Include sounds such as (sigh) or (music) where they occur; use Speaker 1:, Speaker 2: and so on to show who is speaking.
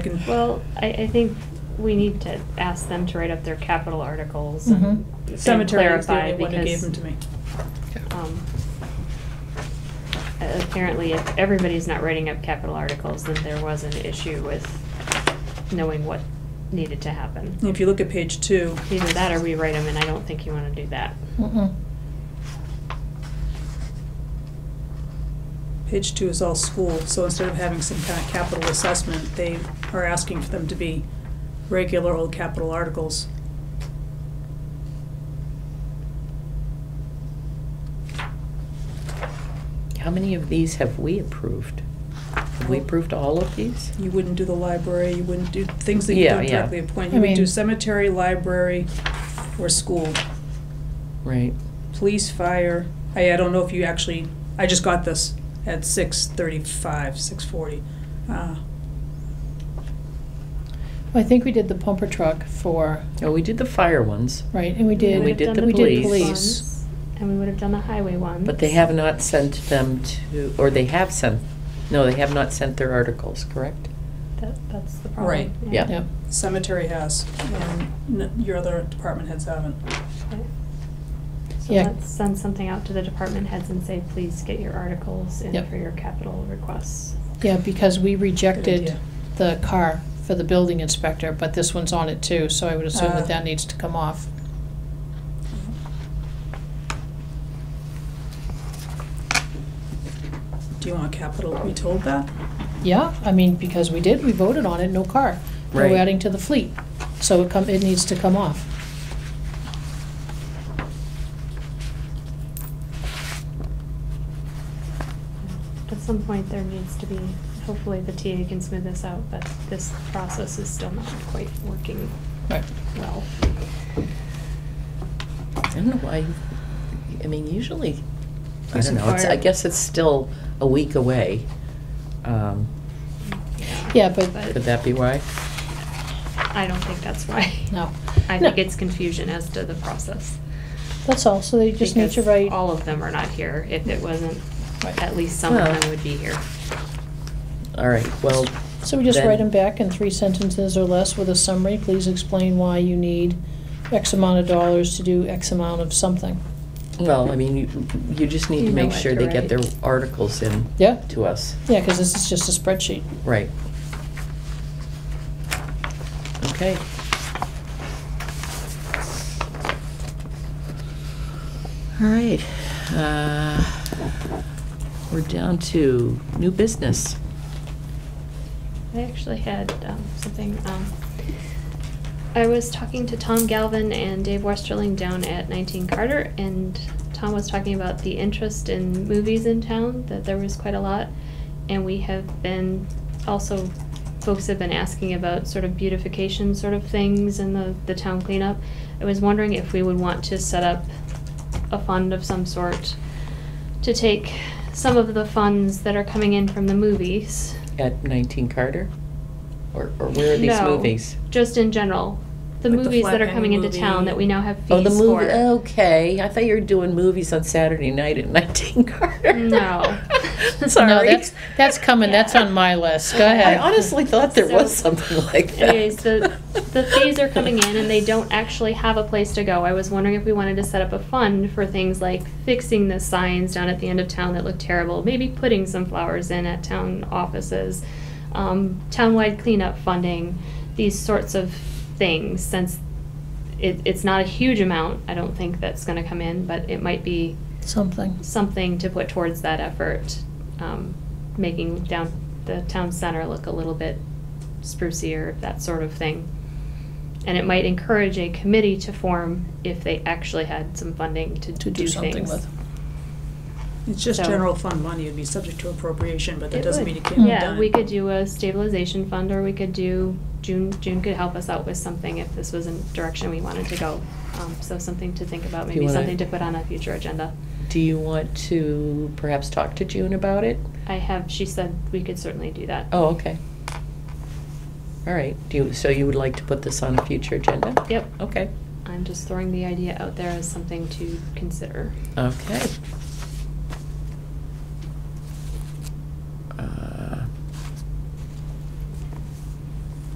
Speaker 1: too.
Speaker 2: Well, I, I think we need to ask them to write up their capital articles
Speaker 1: Mhm.
Speaker 2: and
Speaker 1: Cemetery is the
Speaker 2: clarify
Speaker 1: only one who gave
Speaker 2: because-
Speaker 1: them to me.
Speaker 2: um, apparently if everybody's not writing up capital articles, then there was an issue with knowing what needed to happen.
Speaker 1: If you look at page two,
Speaker 2: Either that or we write them, and I don't think you wanna do that.
Speaker 3: Mm-mm.
Speaker 1: page two is all school, so instead of having some kind of capital assessment, they are asking for them to be regular old capital articles.
Speaker 3: How many of these have we approved? Have we approved all of these?
Speaker 1: You wouldn't do the library, you wouldn't do things that you
Speaker 3: Yeah,
Speaker 1: don't
Speaker 3: yeah.
Speaker 1: directly appoint.
Speaker 3: I
Speaker 1: You would do
Speaker 3: mean-
Speaker 1: cemetery, library, or school.
Speaker 3: Right.
Speaker 1: Police, fire, I, I don't know if you actually, I just got this at six thirty-five, six forty. Uh,
Speaker 4: I think we did the pumper truck for,
Speaker 3: Oh, we did the fire ones,
Speaker 4: right, and we
Speaker 3: And we
Speaker 4: did,
Speaker 3: did
Speaker 2: would've
Speaker 3: the
Speaker 2: done
Speaker 4: police.
Speaker 2: ones, And we would've done the highway ones.
Speaker 3: but they have not sent them to, or they have sent, no, they have not sent their articles, correct?
Speaker 2: That, that's the problem.
Speaker 1: Right.
Speaker 3: Yeah.
Speaker 4: yeah.
Speaker 1: Cemetery has, and n- your other department heads haven't.
Speaker 2: Okay. So
Speaker 4: Yeah.
Speaker 2: let's send something out to the department heads and say, please get your articles in
Speaker 4: Yep.
Speaker 2: for your capital requests.
Speaker 4: Yeah, because we rejected
Speaker 1: idea.
Speaker 4: the car for the building inspector, but this one's on it too, so I would assume
Speaker 1: Ah.
Speaker 4: that that needs to come off.
Speaker 1: Do you want capital to be told that?
Speaker 4: Yeah, I mean, because we did, we voted on it, no car. Now
Speaker 3: Right.
Speaker 4: We're adding to the fleet, so it come, it needs to come off.
Speaker 2: At some point, there needs to be, hopefully the TA can smooth this out, but this process is still not quite working
Speaker 4: Right.
Speaker 2: well.
Speaker 3: I don't know why, I mean, usually, I
Speaker 1: There's
Speaker 3: don't
Speaker 1: some
Speaker 3: know, it's, I
Speaker 1: fire.
Speaker 3: guess it's still a week away. Um,
Speaker 4: Yeah, but-
Speaker 3: Could that be why?
Speaker 2: I don't think that's why.
Speaker 4: No.
Speaker 2: I
Speaker 4: No.
Speaker 2: think it's confusion as to the process.
Speaker 4: That's all, so they just need to
Speaker 2: because
Speaker 4: write.
Speaker 2: All of them are not here. If it wasn't,
Speaker 4: Right.
Speaker 2: at least some of
Speaker 3: Well-
Speaker 2: them would be here.
Speaker 3: All right, well.
Speaker 4: So we just
Speaker 3: then-
Speaker 4: write them back in three sentences or less with a summary, please explain why you need X amount of dollars to do X amount of something.
Speaker 3: Well, I mean, you, you just need
Speaker 2: You
Speaker 3: to
Speaker 2: know
Speaker 3: make
Speaker 2: what
Speaker 3: sure
Speaker 2: to
Speaker 3: they get their
Speaker 2: write.
Speaker 3: articles in
Speaker 4: Yeah,
Speaker 3: to us,
Speaker 4: yeah, because this is just a spreadsheet.
Speaker 3: right? Okay, all right. uh, We're down to new business.
Speaker 2: I actually had um, something. Um, I was talking to Tom Galvin and Dave Westerling down at 19 Carter, and Tom was talking about the interest in movies in town, that there was quite a lot. And we have been also, folks have been asking about sort of beautification sort of things and the, the town cleanup. I was wondering if we would want to set up a fund of some sort to take some of the funds that are coming in from the movies
Speaker 3: At 19 Carter? Or, or where are these
Speaker 2: No.
Speaker 3: movies?
Speaker 2: just in general, the
Speaker 1: Like the
Speaker 2: movies that are
Speaker 1: Flatpenny
Speaker 2: coming into
Speaker 1: movie.
Speaker 2: town that we now have fees
Speaker 3: Oh, the movie.
Speaker 2: for.
Speaker 3: Okay, I thought you were doing movies on Saturday night at (laughs) 19 Carter. (laughs)
Speaker 2: No.
Speaker 3: sorry.
Speaker 4: No, that's, that's coming, that's on my list, go
Speaker 3: I
Speaker 4: ahead.
Speaker 3: honestly thought there was
Speaker 2: So-
Speaker 3: something like that.
Speaker 2: Anyways, the the fees are coming in and they don't actually have a place to go. I was wondering if we wanted to set up a fund for things like fixing the signs down at the end of town that look terrible, maybe putting some flowers in at town offices, um, townwide cleanup funding, these sorts of things. Since it, it's not a huge amount, I don't think that's going to come in, but it might be
Speaker 4: Something.
Speaker 2: something to put towards that effort, um, making down the town center look a little bit sprucier, that sort of thing. And it might encourage a committee to form if they actually had some funding to,
Speaker 4: To do something
Speaker 2: things.
Speaker 4: with.
Speaker 1: It's just
Speaker 2: So-
Speaker 1: general fund money, it'd be subject to appropriation, but that
Speaker 2: It
Speaker 1: doesn't
Speaker 2: would.
Speaker 1: mean it can't be
Speaker 2: Yeah,
Speaker 1: done.
Speaker 2: we could do a stabilization fund, or we could do, June, June could help us out with something if this was a direction we wanted to go. Um, so something to think about,
Speaker 3: Do you
Speaker 2: maybe
Speaker 3: wanna-
Speaker 2: something to put on a future agenda.
Speaker 3: Do you want to perhaps talk to June about it?
Speaker 2: I have, she said we could certainly do that.
Speaker 3: Oh, okay. All right, do you, so you would like to put this on a future agenda?
Speaker 2: Yep.
Speaker 3: Okay,
Speaker 2: I'm just throwing the idea out there as something to consider.
Speaker 3: okay. Uh,